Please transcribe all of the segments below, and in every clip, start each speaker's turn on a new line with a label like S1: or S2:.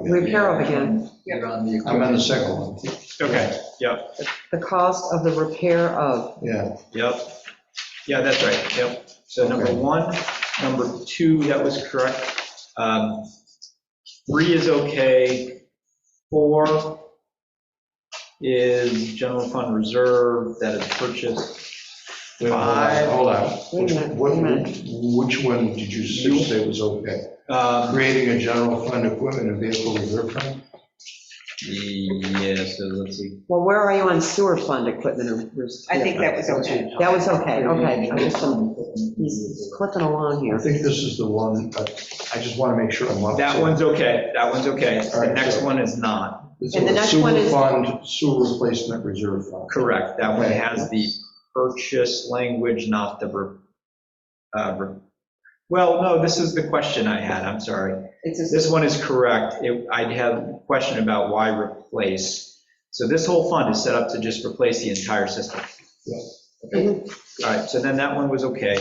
S1: repair of again.
S2: You're on the
S3: I'm on the
S2: equipment.
S3: second one,
S4: Okay,
S1: The cost of the repair of,
S3: yeah.
S4: yep. Yeah, that's right, yep. So number
S3: Okay.
S4: one, number two, that was correct. Um, Three is okay. Four is general fund reserve that is purchased.
S3: Wait, hold on,
S4: Five.
S3: Hold on.
S1: Wait a
S3: Which-
S1: minute,
S3: what-
S1: wait a minute.
S3: Which one did you
S4: You-
S3: say was okay?
S4: Um,
S3: Creating a general fund equipment and vehicle reserve fund?
S4: Yeah, so let's see.
S1: well, where are you on sewer fund equipment? or- or-
S5: I think that was okay.
S1: That was okay, okay. I'm just, um, he's clipping along
S3: I
S1: here.
S3: think this is the one, but I just want to make sure I'm up.
S4: That one's okay, that one's okay.
S3: All
S4: The
S3: right,
S4: next
S3: so-
S4: one is not,
S3: It's
S1: and the
S3: a
S1: next one
S3: sewer
S1: is-
S3: fund, sewer replacement reserve fund.
S4: correct. That one
S3: Okay.
S4: has the purchase language, not the, re- uh, re- well, no, this is the question I had, I'm sorry.
S5: It's a,
S4: This one is correct. It- I'd have a question about why replace. So this whole fund is set up to just replace the entire system.
S3: Yeah.
S4: Okay. All right, so then that one was okay.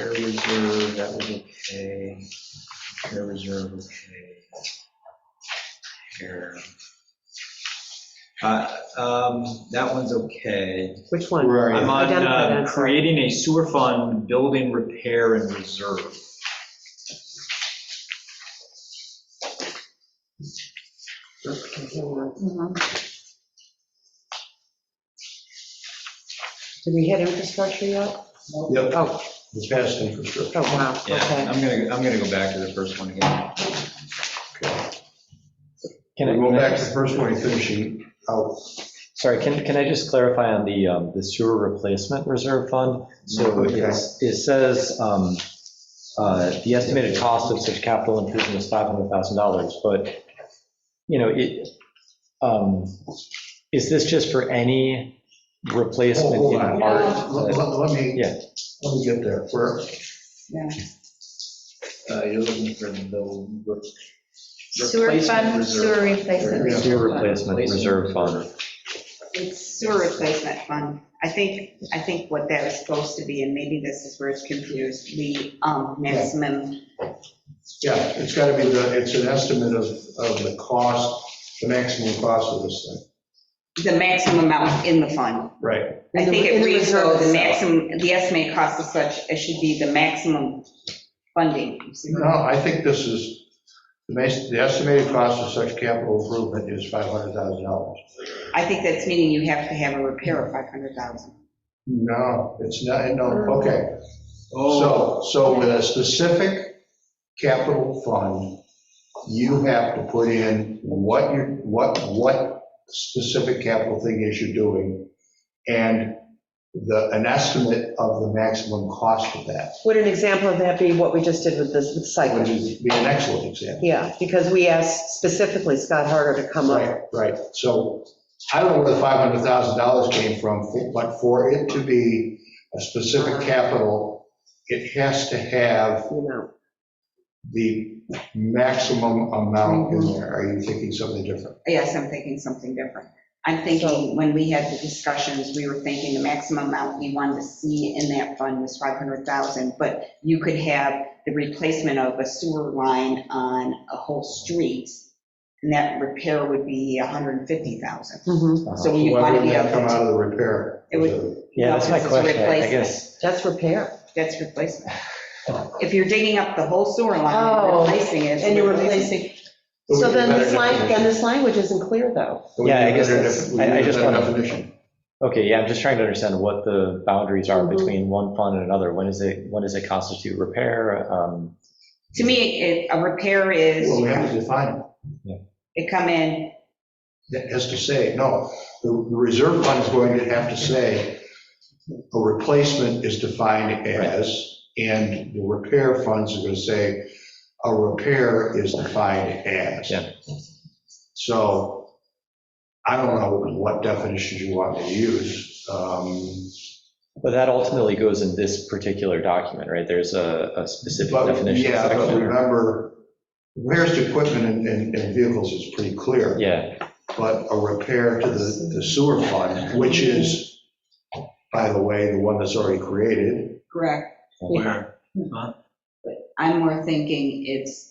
S4: Air reserve, that was okay. Air reserve, okay. Air. Uh, um, That one's okay.
S1: Which one?
S3: Where are
S4: I'm
S3: you?
S4: on
S1: Identify that,
S4: uh,
S1: sorry.
S4: creating a sewer fund, building repair and reserve.
S1: Did we hit infrastructure yet?
S3: Yep,
S1: Oh,
S3: the past infrastructure.
S1: oh, wow,
S4: Yeah,
S1: okay.
S4: I'm gonna, I'm gonna go back to the first one again.
S6: Can I,
S3: We'll go
S6: can I-
S3: back to the first one, you're finishing out.
S6: sorry, can, can I just clarify on the, um, the sewer replacement reserve fund? So
S3: Okay.
S6: it's- it says, um, uh, the estimated cost of such capital improvement is $500,000, but, you know, it, um, is this just for any
S3: Hold
S6: replacement
S3: hold
S6: in
S3: on,
S6: part?
S3: let let- let me,
S6: Yeah.
S3: let me get there. For
S2: Uh, You're looking for the.
S7: Sewer fund, sewer replacement.
S6: Sewer replacement reserve fund.
S5: it's sewer replacement fund. I think, I think what that is supposed to be, and maybe this is where it's confused, the um, maximum,
S3: Yeah, it's got to be, the. it's an estimate of, of the cost, the maximum cost of this thing.
S5: the maximum amount in the fund.
S3: Right.
S5: I think
S1: In
S5: it
S1: the
S5: reads though,
S1: reserve
S5: the
S1: itself.
S5: maximum, the estimated cost of such, it should be the maximum funding. You see what
S3: No,
S5: I'm-
S3: I think this is, the mas- the estimated cost of such capital improvement is $500,000.
S5: I think that's meaning you have to have a repair of 500,000.
S3: No, it's not, no, okay.
S4: Oh,
S3: So, so with a specific capital fund, you have to put in what you're, what, what specific capital thing is you're doing, and the, an estimate of the maximum cost of that.
S1: Would an example of that be what we just did with this with
S3: which
S1: cycling?
S3: would be an excellent example.
S1: Yeah, because we asked specifically Scott Harder to come up.
S3: Right, right. So I don't know where the $500,000 came from, but for it to be a specific capital, it has to have
S1: you know.
S3: the maximum amount
S1: Mm-hmm.
S3: in there. Are you thinking something different?
S5: Yes, I'm thinking something different. I'm thinking, when we had the discussions, we were thinking the maximum amount we wanted to see in that fund was 500,000, but you could have the replacement of a sewer line on a whole street, and that repair would be 150,000.
S6: Hmm.
S1: Mhm.
S5: So you
S3: Why
S5: want to
S3: would
S5: be
S3: that come out
S5: up,
S3: of the repair?
S5: It would-
S6: Yeah, that's my
S5: It's a
S6: question, I
S5: replacement.
S6: guess.
S1: That's repair.
S5: that's replacement. If you're digging up the whole sewer line and
S1: Oh,
S5: replacing it. it's
S1: And you're
S5: replacement.
S1: replacing, so then this line, then this language isn't clear, though.
S6: Yeah, I guess that's- I- I just wanna-
S3: Definition.
S6: Okay, yeah, I'm just trying to understand what the boundaries are
S1: Mhm.
S6: between one fund and another. When is it, when does it constitute repair? Um,
S5: To me, it- a repair is,
S3: Well, we have to define it.
S5: it come in,
S3: that has to say, no, the the reserve fund is going to have to say, a replacement is defined as, and the repair funds are going to say, a repair is defined as.
S6: Yeah.
S3: So I don't know what definitions you want me to use. um,
S6: But that ultimately goes in this particular document, right? There's a, a specific
S3: But
S6: definition
S3: yeah, but
S6: section.
S3: remember, repairs to equipment and- and and vehicles is pretty clear.
S6: Yeah,
S3: but a repair to the the sewer fund, which is, by the way, the one that's already created.
S5: correct,
S4: where?
S5: I'm more thinking it's